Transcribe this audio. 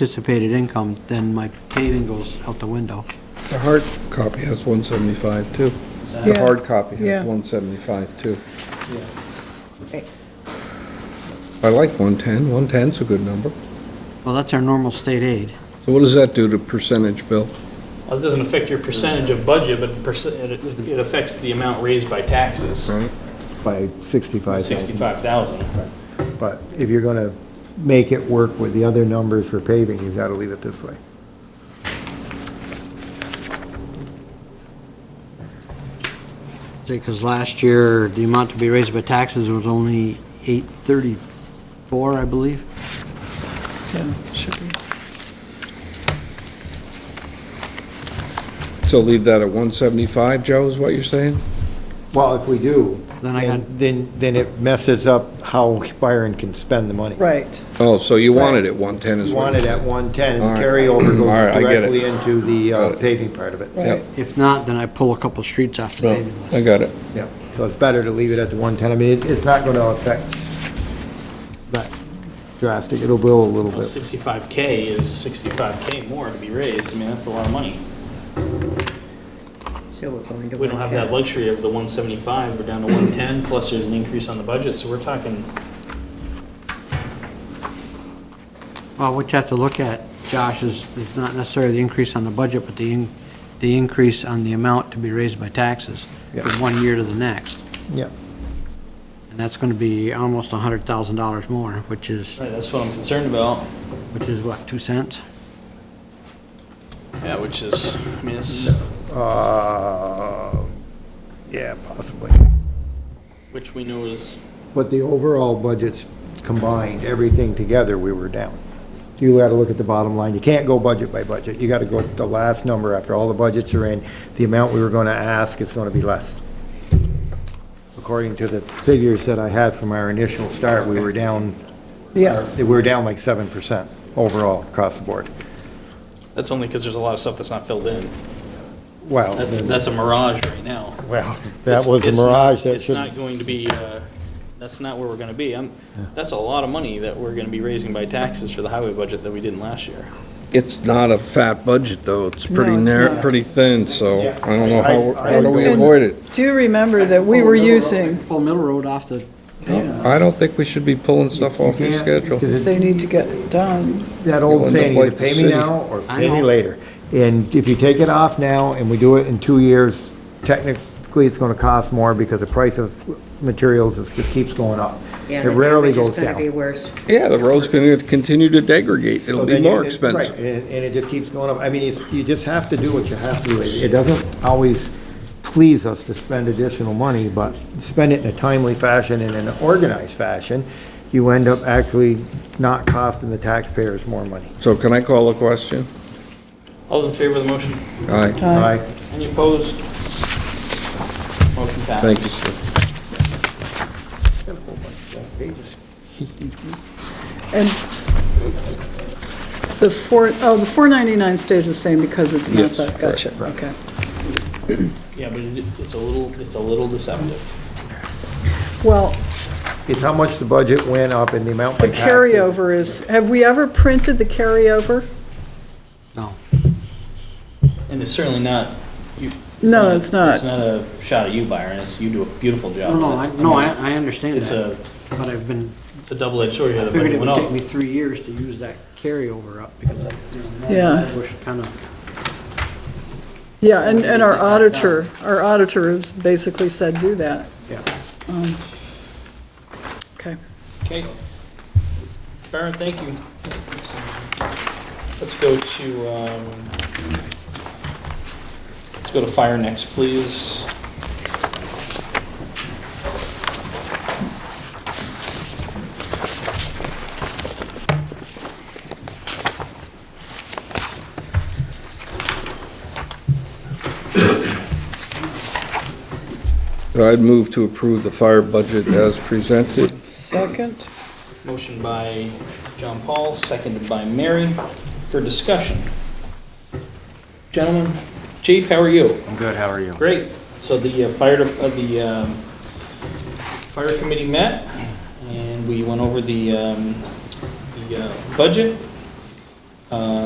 anticipated income, then my paving goes out the window. The hard copy has 175 too. The Yeah. hard copy Yeah. has 175 too. Right. I like 110, 110's a good number. Well, that's our normal state aid. So what does that do to percentage, Bill? Well, it doesn't affect your percentage of budget, but perc- it it affects the amount raised by taxes, by 65,000. 65,000. But if you're going to make it work with the other numbers for paving, you've got to leave it this way. Because last year, the amount to be raised by taxes was only 834, I believe. So leave that at 175, Joe, is what you're saying? Well, if we do, Then I got- then, then it messes up how Byron can spend the money. Right. Oh, so you wanted it 110 as You well? want it at 110, All and right. the carryover All right, I goes get it. directly into the Got uh, it. paving part of it. Right. Yep, If not, then I pull a couple streets off the no, paving I list. got it. Yeah. So it's better to leave it at the 110. I mean, it- it's not going to affect that drastic. It'll blow a little Well, bit. 65K is 65K more to be raised, I mean, that's a lot of money. So we're going to. We don't have that luxury of the 175, we're down to 110, plus there's an increase on the budget, so we're talking, Well, what you have to look at, Josh, is is not necessarily the increase on the budget, but the, in- the increase on the amount to be raised by taxes Yeah. from one year to the next. Yeah. And that's going to be almost $100,000 more, which is, right, that's what I'm concerned about. which is what, 2 cents? Yeah, which is, I mean, it's, Uh, Yeah, possibly. which we know is, But the overall budgets combined, everything together, we were down. You gotta look at the bottom line. You can't go budget by budget. You gotta go at the last number after all the budgets are in. The amount we were gonna ask is gonna be less. According to the figures that I had from our initial start, we were down, Yeah, we were down like seven percent overall across the board. that's only because there's a lot of stuff that's not filled in. Well, That's, that's a mirage right now. well, that It's- was a it's not- mirage that It's should, not going to be, uh, that's not where we're gonna be. I'm, that's a lot of money that we're gonna be raising by taxes for the highway budget that we didn't last year. It's not a fat budget, though. It's No, pretty it's narrow, not. pretty thin, so Yeah. I don't know how, I- I- how do we And- avoid it? do remember that we were using, Pull Middle Road off the, I don't think we should be pulling stuff off your can't, schedule. because it- they need to get done. that You'll old end saying, up either like pay the me city. now or I pay me know. later. And if you take it off now and we do it in two years, technically it's gonna cost more because the price of materials is, just keeps going up. It rarely goes It's going to be down. worse. Yeah, the road's going to continue to degrade. So It'll be then you- more it- expensive. Right, and, and it just keeps going up. I mean, it's- you just have to do what you have to do. It it doesn't always please us to spend additional money, but spend it in a timely fashion and in an organized fashion, you end up actually not costing the taxpayers more money. So can I call a question? All those in favor of the motion? Aye. Aye. Aye. Any opposed? Motion passes. Thank you, sir. And the four, oh, the 499 stays the same because it's not Yes, that, gotcha, okay. Yeah, but it- it's a little, it's a little deceptive. Well, It's how much the budget went up and the amount the by taxes. carryover is, have we ever printed the carryover? no. And it's certainly not, you. No, it's not. It's not a shot at you, Byron, it's, you do a beautiful job. No, Oh, no, I, no, I, I understand It's that, a, but I've been, it's a double-edged sword, you I gotta figured bring it one would take up. me three years to use that carryover up because I, you Yeah. know, bush kind of, Yeah, and, and our auditor, our auditor has basically said do that, yeah. okay. Okay. Byron, thank you. Let's go to, um, let's go to fire next, please. I'd move to approve the fire budget as presented. Second, Motion by John Paul, seconded by Mary, for discussion. Gentlemen, Chief, how are you? I'm good, how are you? Great. So the uh, fire, de- uh, the um, fire committee met, and we went over the, um, the uh, budget. Um,